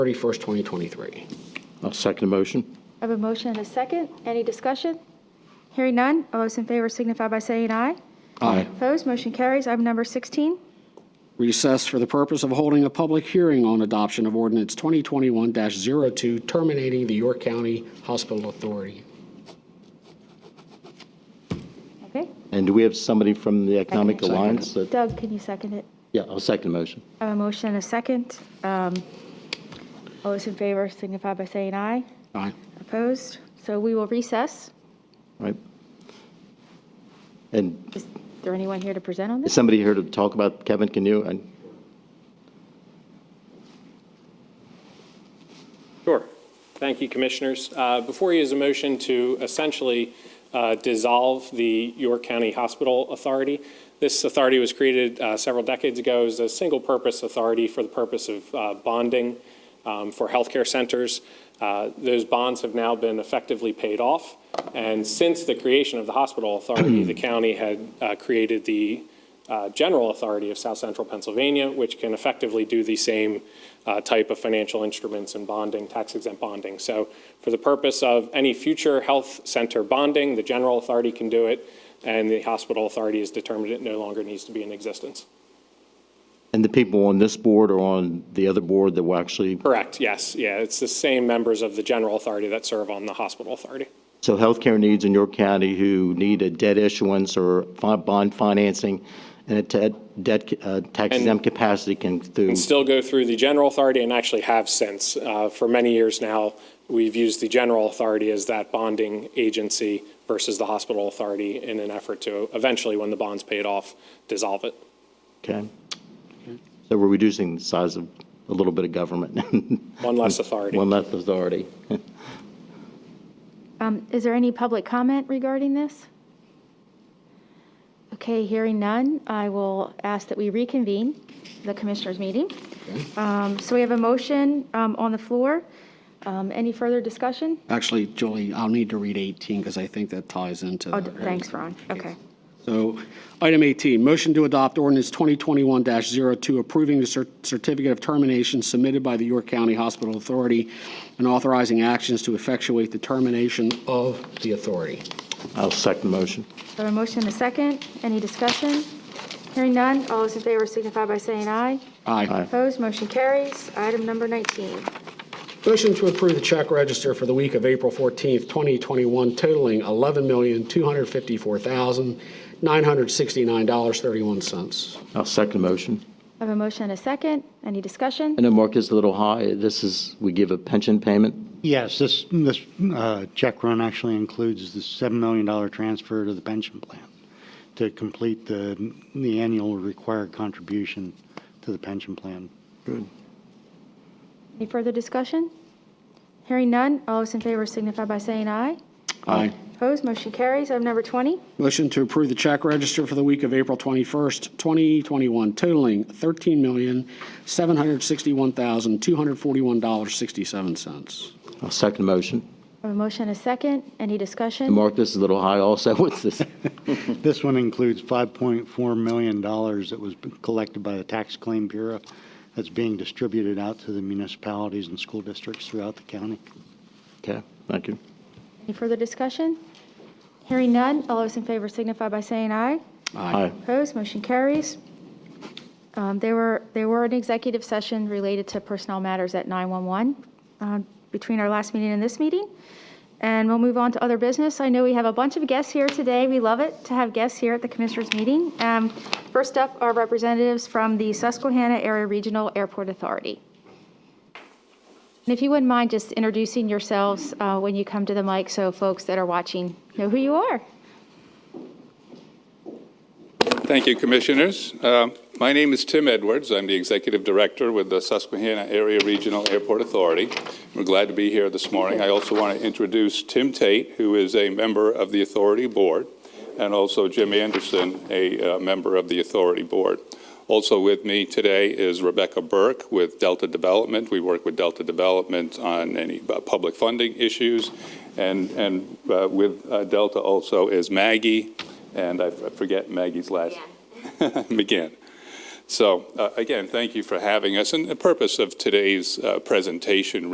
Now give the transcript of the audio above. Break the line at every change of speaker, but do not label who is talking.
31st, 2023.
I'll second the motion.
I have a motion and a second. Any discussion? Hearing none. All those in favor signify by saying aye.
Aye.
Opposed, motion carries. Item number 16.
Recess for the purpose of holding a public hearing on adoption of ordinance 2021-02 terminating the York County Hospital Authority.
Okay.
And do we have somebody from the Economic
Second.
Alliance? that-
Doug, can you second it?
Yeah, I'll second the motion.
I have a motion and a second. Um, All those in favor signify by saying aye.
Aye.
Opposed? So we will recess.
Right. And
Is there anyone here to present on
is
this?
somebody here to talk about, Kevin, can you? and-
Sure. Thank you, Commissioners. Uh, Before you is a motion to essentially uh, dissolve the York County Hospital Authority. This authority was created uh, several decades ago as a single-purpose authority for the purpose of uh, bonding um, for healthcare centers. Uh, Those bonds have now been effectively paid off, and since the creation of the hospital authority, the county had uh, created the uh, general authority of South Central Pennsylvania, which can effectively do the same uh, type of financial instruments and bonding, tax exempt bonding. So, for the purpose of any future health center bonding, the general authority can do it, and the hospital authority has determined it no longer needs to be in existence.
And the people on this board or on the other board that will actually,
Correct, yes. Yeah, it's the same members of the general authority that serve on the hospital authority.
so healthcare needs in York County who need a debt issuance or fi- bond financing and a te- debt, uh, tax exempt capacity can through,
and still go through the general authority and actually have since. Uh, For many years now, we've used the general authority as that bonding agency versus the hospital authority in an effort to eventually, when the bond's paid off, dissolve it.
okay? So we're reducing the size of a little bit of government,
One less authority.
one less authority.
Um, Is there any public comment regarding this? Okay, hearing none, I will ask that we reconvene the commissioners' meeting. Um, So we have a motion um, on the floor. Um, Any further discussion?
Actually, Julie, I'll need to read 18 because I think that ties into.
Oh,
the-
thanks, Ron. Okay.
So, item 18, motion to adopt ordinance 2021-02 approving the cer- certificate of termination submitted by the York County Hospital Authority and authorizing actions to effectuate the termination of the authority.
I'll second the motion.
I have a motion and a second. Any discussion? Hearing none, all those in favor signify by saying aye.
Aye.
Opposed, motion carries. Item number 19.
Motion to approve the check register for the week of April 14th, 2021 totaling $11,254,969.31.
I'll second the motion.
I have a motion and a second. Any discussion?
I know Mark is a little high. This is, we give a pension payment.
Yes, this, this uh, check run actually includes the $7 million transfer to the pension plan to complete the, the annual required contribution to the pension plan.
Any further discussion? Hearing none, all those in favor signify by saying aye.
Aye.
Opposed, motion carries. Item number 20.
Motion to approve the check register for the week of April 21st, 2021 totaling $13,761,241.67.
I'll second the motion.
I have a motion and a second. Any
And
discussion?
Mark, this is a little high also. What's this?
This one includes $5.4 million that was collected by the Tax Claim Bureau that's being distributed out to the municipalities and school districts throughout the county.
Okay, thank you.
Any further discussion? Hearing none, all those in favor signify by saying aye.
Aye.
Opposed, motion carries. Um, There were, there were an executive session related to personnel matters at 911 um, between our last meeting and this meeting. And we'll move on to other business. I know we have a bunch of guests here today. We love it to have guests here at the Commissioners' meeting. Um, First up are representatives from the Susquehanna Area Regional Airport Authority. And if you wouldn't mind just introducing yourselves uh, when you come to the mic, so folks that are watching know who you are.
Thank you, Commissioners. Uh, My name is Tim Edwards. I'm the Executive Director with the Susquehanna Area Regional Airport Authority. We're glad to be here this morning. I also want to introduce Tim Tate, who is a member of the Authority Board, and also Jim Anderson, a uh, member of the Authority Board. Also with me today is Rebecca Burke with Delta Development. We work with Delta Development on any uh, public funding issues. And, and uh, with uh, Delta also is Maggie, and I f- I forget Maggie's last. McGinn. So uh, again, thank you for having us. And the purpose of today's uh, presentation